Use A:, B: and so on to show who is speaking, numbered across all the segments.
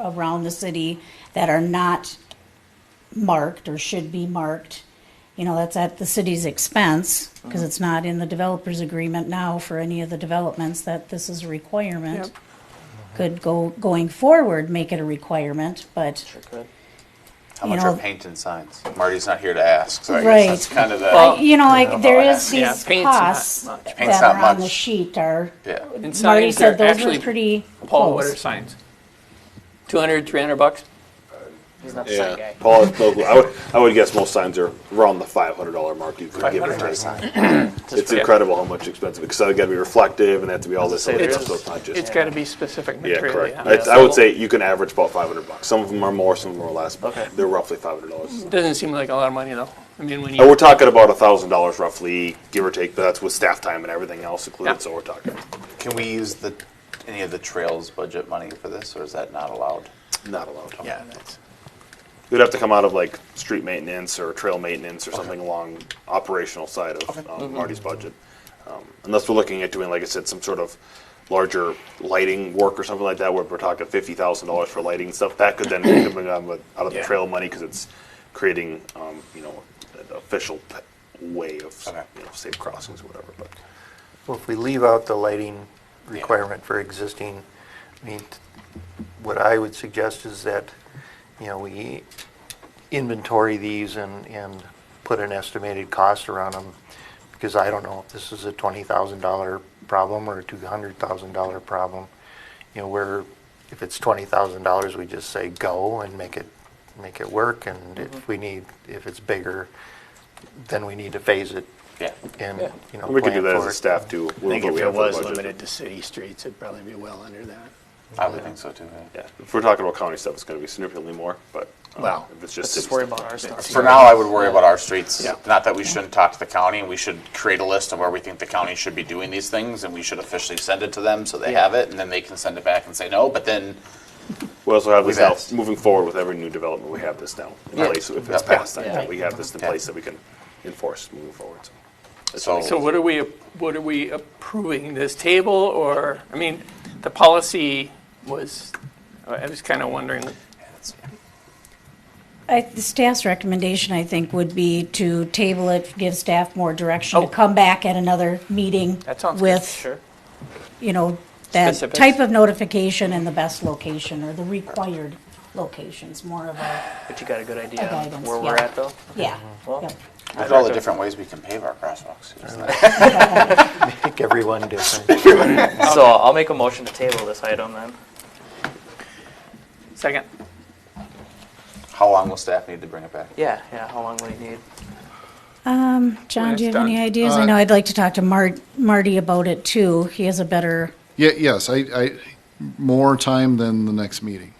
A: around the city that are not marked or should be marked. You know, that's at the city's expense, because it's not in the developer's agreement now for any of the developments that this is a requirement.
B: Yep.
A: Could go, going forward, make it a requirement, but
C: Sure could.
D: How
A: You
D: much are
A: know-
D: painted signs? Marty's not here to ask, so I
A: Right.
D: guess that's kind of the.
A: I- you know, like, there
D: Yeah.
A: is
B: Yeah,
A: these
B: paint's not
A: costs
B: much.
D: Paint's
A: that
D: not
A: are on the
D: much.
A: sheet are,
D: yeah.
B: And
A: Marty
B: signs
A: said
B: are
A: those were
B: actually,
A: pretty
B: Paul, what are
A: close.
B: signs? 200, 300 bucks?
C: He's not the sign
E: Yeah,
C: guy.
E: Paul is local. I would, I would guess most signs are around the five hundred dollar mark. You could give or
D: Painted
E: take.
D: sign.
E: It's
B: Yeah.
E: incredible how much expensive because they got to be reflective and they have to be all this.
C: Say
E: other
C: there
E: stuff,
C: is-
E: so it's not just.
B: It's got to be specific
E: yeah,
B: material.
E: correct.
B: yeah.
E: It's- I would say you can average about five hundred bucks. Some of them are more, some of them are less. but
C: Okay.
E: They're roughly five hundred dollars.
B: Doesn't seem like a lot of money, though. I mean, when
E: And we're
B: you,
E: talking about a thousand dollars roughly, give or take. But that's with staff time and everything else included.
B: Yeah.
E: So we're talking.
D: Can we use the any of the trails budget money for this, or is that not allowed?
E: Not allowed.
D: Yeah.
E: It would have to come out of like street maintenance or trail maintenance or something along operational side of um, Marty's budget. Um, Unless we're looking at doing, like I said, some sort of larger lighting work or something like that, where we're talking fifty thousand dollars for lighting and stuff, that could then be coming out of, out of the
B: Yeah.
E: trail money, because it's creating, um, you know, an official p- way of,
D: Okay.
E: you know, safe crossings or whatever, but.
F: Well, if we leave out the lighting requirement for existing, I mean, what I would suggest is that, you know, we inventory these and, and put an estimated cost around them, because I don't know if this is a twenty thousand dollar problem or a two hundred thousand dollar problem. You know, where, if it's twenty thousand dollars, we just say go and make it, make it work, and if we need, if it's bigger, then we need to phase it
D: Yeah.
F: and,
B: Yeah.
F: you know,
E: We could do
F: plan
E: that as
F: for
E: a
F: it.
E: staff too.
G: I think if it was limited to city streets, it'd probably be well under that.
D: I would think so too. Yeah.
E: Yeah, if we're talking about county stuff, it's gonna be significantly more, but. um,
G: Well,
E: If it's
C: Let's
E: just.
C: just
E: city
C: worry
E: stuff.
C: about our stuff.
D: For now, I would worry about our streets.
G: Yeah.
D: Not that we shouldn't talk to the county, and we should create a list of where we think the county should be doing these things, and we should officially send it to them so they have it, and then they can send it back and say no. But then,
E: We also have this
D: We've
E: out,
D: asked.
E: moving forward with every new development, we have this now in
D: Yeah.
E: place, if it's
D: Yeah.
E: passed,
D: Yeah.
E: that we have this in
D: Yeah.
E: place that we can enforce moving forward, so.
D: so,
B: so what are we, what are we approving? This table or, I mean, the policy was, I was kind of wondering,
A: I, the staff's recommendation, I think, would be to table it, give staff more direction, to
B: Oh.
A: come back at another meeting
B: that sounds good.
A: with,
B: Sure.
A: you know, that
B: Specifics.
A: type of notification and the best location, or the required locations, more of a,
C: But you got a good
A: A
C: idea
A: guidance,
C: where we're
A: yeah.
C: at, though?
A: yeah.
C: Well,
A: yep.
D: look at all the different ways we can pave our crosswalks.
F: Pick everyone different.
C: So I'll make a motion to table this item then.
B: Second.
D: How long will staff need to bring it back?
C: Yeah, yeah, how long will you need?
B: When
A: John,
B: it's
A: do you have any
B: done. Uh,
A: ideas? I know I'd like to talk to Mar- Marty about it too. He has a better,
H: Yeah, yes, I, I, more time than the next meeting.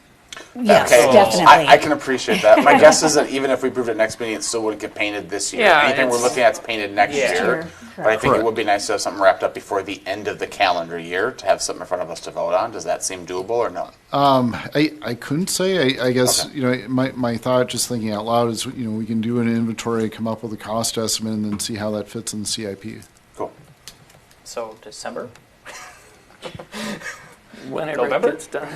A: yes,
D: Okay. I, I
A: definitely.
D: can appreciate that. My guess is that even if we approved it next meeting, it still wouldn't get painted this year.
B: Yeah,
D: Anything we're
B: it's-
D: looking at is painted next
C: Yeah.
D: year.
A: Sure,
D: But I think it
H: correct.
D: would be nice to have something wrapped up before the end of the calendar year to have something in front of us to vote on. Does that seem doable or no?
H: I, I couldn't say, I, I guess,
D: Okay.
H: you know, my, my thought, just thinking out loud is, you know, we can do an inventory, come up with a cost estimate and then see how that fits in the CIP.
D: Cool.
C: So December?
B: Whenever it
C: November?
B: gets done.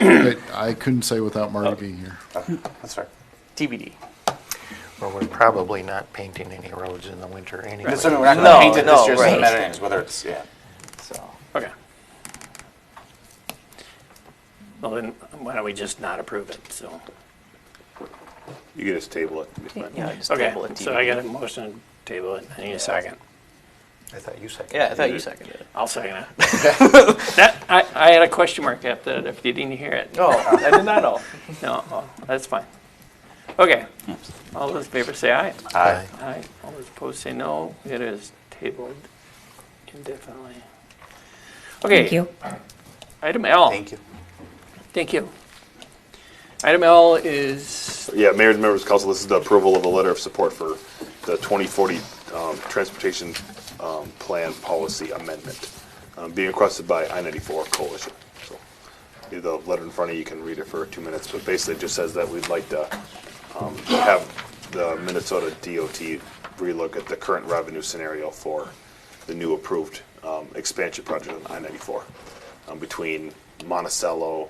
H: But I couldn't say without Marty being here.
D: Okay, That's fair.
C: TBD.
F: Well, we're probably not painting any roads in the winter anyway.
D: Assuming we're not going to
C: No,
D: paint it this
C: no,
D: year, so it doesn't
C: right.
D: matter anyways, whether it's, yeah.
C: So,
B: Okay.
G: Well, then, why don't we just not approve it, so?
E: You can just table it. It's fine.
C: yeah, just
G: Okay,
C: table it.
G: so I got a motion to table it, I need a second.
F: I thought you said.
C: Yeah, I thought you seconded it.
G: I'll second it.
B: That, I, I had a question mark after that if you didn't hear it.
C: Oh, I did not know.
B: No, oh, that's fine. Okay. All those in favor say aye.
F: Aye.
B: Aye. All those opposed say no. It is tabled indefinitely.
A: Thank
B: Okay,
A: you.
B: item L.
D: Thank you.
B: Thank you. Item L is,
E: Yeah, Mayor and members of council, this is the approval of a letter of support for the 2040 um, Transportation um, Plan Policy Amendment um, being requested by I-94 Coalition. So, you have the letter in front of you, you can read it for two minutes, but basically it just says that we'd like to um, have the Minnesota DOT relook at the current revenue scenario for the new approved um, expansion project on I-94 um, between Monticello,